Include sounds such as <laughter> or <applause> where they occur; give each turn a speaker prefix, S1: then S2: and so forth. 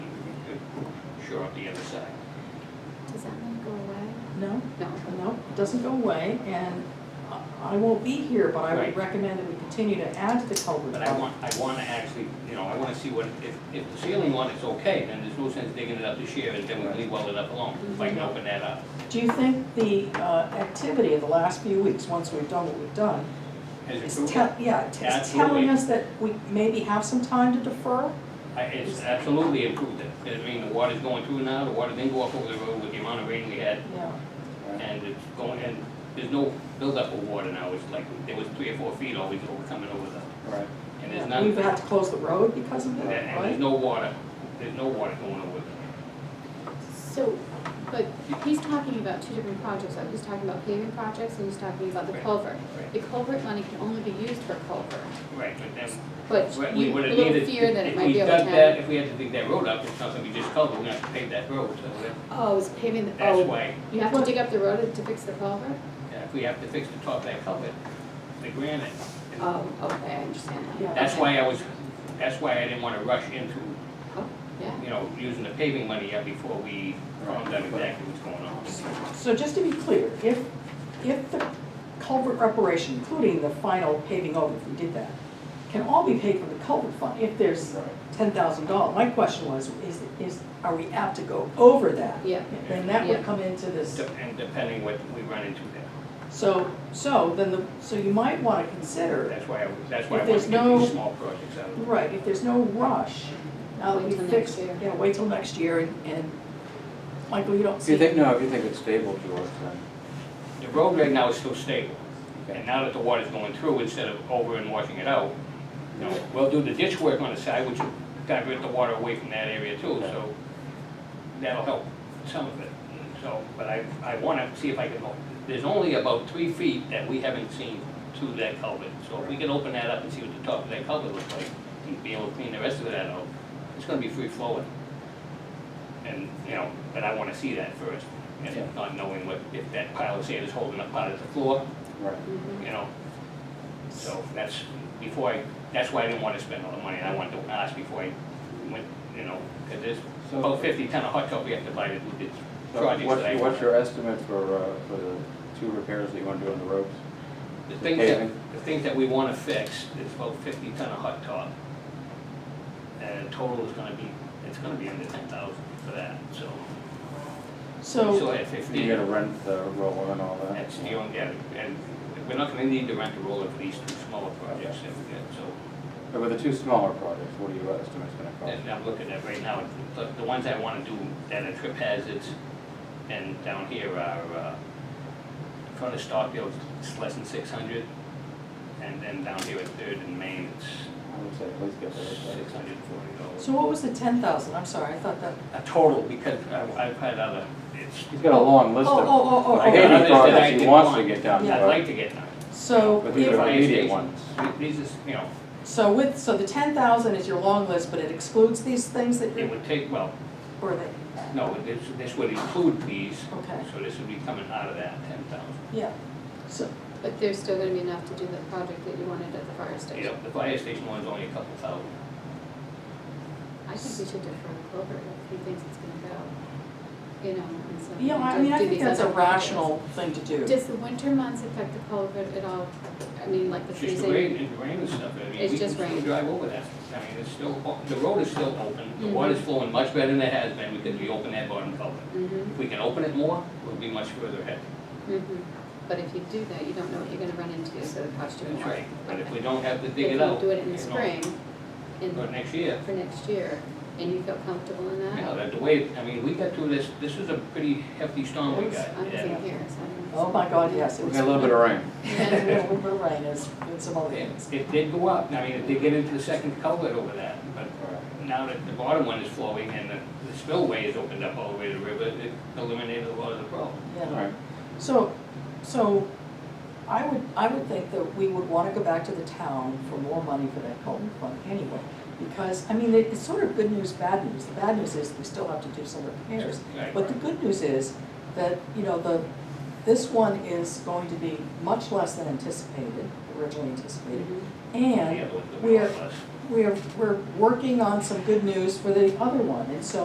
S1: structure on the other side.
S2: Does that one go away?
S3: No,
S2: No.
S3: no, it doesn't go away, and I- I won't be here, but I
S1: Right.
S3: would recommend that we continue to add to the culvert.
S1: But I want, I want to actually, you know, I want to see what, if, if the ceiling one is okay, then there's no sense digging it up this year and then we leave well it up alone, if
S3: Mhm.
S1: I can open that up.
S3: Do you think the uh, activity of the last few weeks, once we've done what we've done,
S1: Has
S3: is
S1: it proven?
S3: tell, yeah, t- is
S1: Absolutely.
S3: telling us that we maybe have some time to defer?
S1: I- It's absolutely improved it. I mean, the water's going through now, the water didn't go up over the road with the amount of rain we had,
S3: Yeah.
S1: and it's going, and there's no buildup of water now, it's like, there was three or four feet always over, coming over the,
S4: Right.
S1: and there's
S3: We've
S1: none,
S3: had to close the road because of
S1: and
S3: that,
S1: and there's
S3: right?
S1: no water, there's no water going over the,
S2: So, but he's talking about two different projects, though. he's talking about paving projects and he's talking about the
S1: Right.
S2: culvert.
S1: Right.
S2: The culvert money can only be used for culvert,
S1: right, but then
S2: but
S1: Right, we
S2: you, a
S1: would have
S2: little
S1: needed,
S2: fear that it
S1: if
S2: might
S1: we
S2: be over
S1: dug that,
S2: ten.
S1: if we had to dig that road up, it's not gonna be just covered, we're gonna have to pave that road, so that-
S2: Oh, it's paving, the
S1: that's
S2: oh,
S1: why,
S2: you have to dig up the road to fix the culvert?
S1: yeah, if we have to fix the top of that culvert, the granite.
S2: Oh, okay, I understand that.
S3: Yeah.
S1: That's
S2: Okay. Oh,
S1: why I was, that's why I didn't wanna rush into,
S2: Yeah,
S1: you know, using the paving money yet before we found out exactly what's going on.
S3: So just to be clear, if, if the culvert reparation, including the final paving over, if we did that, can all be paid from the culvert fund, if there's ten thousand dollars, my question was, is, is, are we apt to go over that?
S2: yeah,
S3: Then that would
S2: Yeah.
S3: come into this.
S1: De- And depending what we run into there,
S3: So, so then the, so you might wanna consider,
S1: that's why I, was- that's why I wanted
S3: If there's
S1: to get
S3: no-
S1: these small projects out of the way.
S3: right, if there's no rush, now that
S2: Wait
S3: we
S2: till
S3: fix,
S2: next year.
S3: yeah, wait till next year and, and, Michael, you don't
S4: If
S3: see.
S4: you think, no, if you think it's stable, George, then.
S1: The road right now is still stable,
S4: okay.
S1: and now that the water's going through instead of over and washing it out, you know, we'll do the ditch work on the side, which will divert the water away from that area too, so that'll help some of it. So, but I, I wanna see if I can, o- there's only about three feet that we haven't seen through that culvert. So if we can open that up and see what the top of that culvert looks like, and be able to clean the rest of that out, it's gonna be free flowing. And, you know, but I wanna see that first,
S4: Yeah.
S1: and not knowing what, if that pile of sand is holding up part of the floor,
S4: Right.
S2: mhm.
S1: you know? So that's, before I, that's why I didn't wanna spend all the money, I wanted to ask before I went, you know, cause there's
S4: So-
S1: about fifty ton of hot top we have to buy to do this
S4: So
S1: project that I-
S4: Uh, what's, what's your estimate for, uh, for the two repairs that you want to do on the roads?
S1: The things
S4: paving?
S1: that, the things that we wanna fix is about fifty ton of hot top. And the total is gonna be, it's gonna be under ten thousand for that, so.
S3: So,
S1: So at fifty,
S4: You gotta rent the roller and all that?
S1: that's the only, yeah, and we're not gonna need to rent a roller for these two smaller projects that we get, so.
S4: But with the two smaller projects, what do you estimate it's gonna cost?
S1: And I'm looking at right now, the, the ones I wanna do that are trip hazards and down here are, uh, in front of Starfield, it's less than six hundred. And then down here at Third and Main, it's
S4: I would say at least get that.
S1: six hundred and forty dollars.
S3: so what was the ten thousand, I'm sorry, I thought that,
S1: A total, because I, I've had other, it's,
S4: He's got a long
S3: oh,
S4: list
S3: oh,
S4: of,
S3: oh, oh,
S4: I
S3: oh,
S4: gave
S1: Others
S4: you
S1: that I
S4: projects he
S1: didn't
S4: wants to
S1: want.
S4: get down to.
S1: I'd like to get none.
S3: so
S4: But these
S3: if,
S4: are
S1: Fire
S4: immediate
S1: stations,
S4: ones.
S1: These is, you know,
S3: so with, so the ten thousand is your long list, but it excludes these things that
S1: it
S3: you,
S1: would take, well,
S3: or they,
S1: no, this, this would include these,
S3: okay,
S1: so this would be coming out of that ten thousand.
S3: yeah. So,
S2: But there's still gonna be enough to do the project that you wanted at the fire
S1: You
S2: station.
S1: know, the fire station one's only a couple thousand.
S2: I think we should defer the culvert if he thinks it's gonna go, you know, and so.
S3: yeah, I
S2: do-
S3: mean, I
S2: do
S3: think
S2: these
S3: that's a
S2: other projects.
S3: rational thing to do.
S2: Does the winter months affect the culvert at all? I mean, like the
S1: It's just
S2: freezing?
S1: the rain, it's rain and stuff, I mean,
S2: It's
S1: we can
S2: just
S1: still
S2: rain.
S1: drive over that, I mean, it's still, o- the road is still open, the
S2: Mhm.
S1: water's flowing much better than it has been because we opened that bottom culvert.
S2: Mm-hmm,
S1: If we can open it more, we'll be much further ahead.
S2: mm-hmm. But if you do that, you don't know what you're gonna run into, so it costs you more.
S1: That's right, but if
S2: Okay.
S1: we don't have to
S2: But
S1: dig it out.
S2: If you do it in the
S1: you know,
S2: spring,
S1: But
S2: in,
S1: next year,
S2: for next year, and you feel comfortable in
S1: you
S2: that?
S1: know, that the way, I mean, we got through this, this was a pretty hefty storm Oh, we got.
S2: I'm
S1: and-
S2: seeing here, so I don't know.
S3: Oh my God,
S2: <laughs>
S3: yes, it
S4: We
S3: was.
S4: got a little bit of rain.
S3: <laughs> And a little bit of rain, it's, it's about the ends.
S1: It it did go up, I mean, it did get into the second culvert over that, but now that the bottom one is flowing and the the spillway is opened up all the way to the river, it eliminated a lot of the problem.
S4: All
S3: Yeah.
S4: right,
S3: So, so I would, I would think that we would want to go back to the town for more money for that Colton fund anyway. Because, I mean, it- it's sort of good news, bad news. The bad news is we still have to do some repairs.
S1: Right.
S3: But the good news is that, you know, the, this one is going to be much less than anticipated, originally anticipated.
S2: Mhm.
S3: And
S1: Yeah, the- the
S3: we're,
S1: process.
S3: we're, we're working on some good news for the other one. And so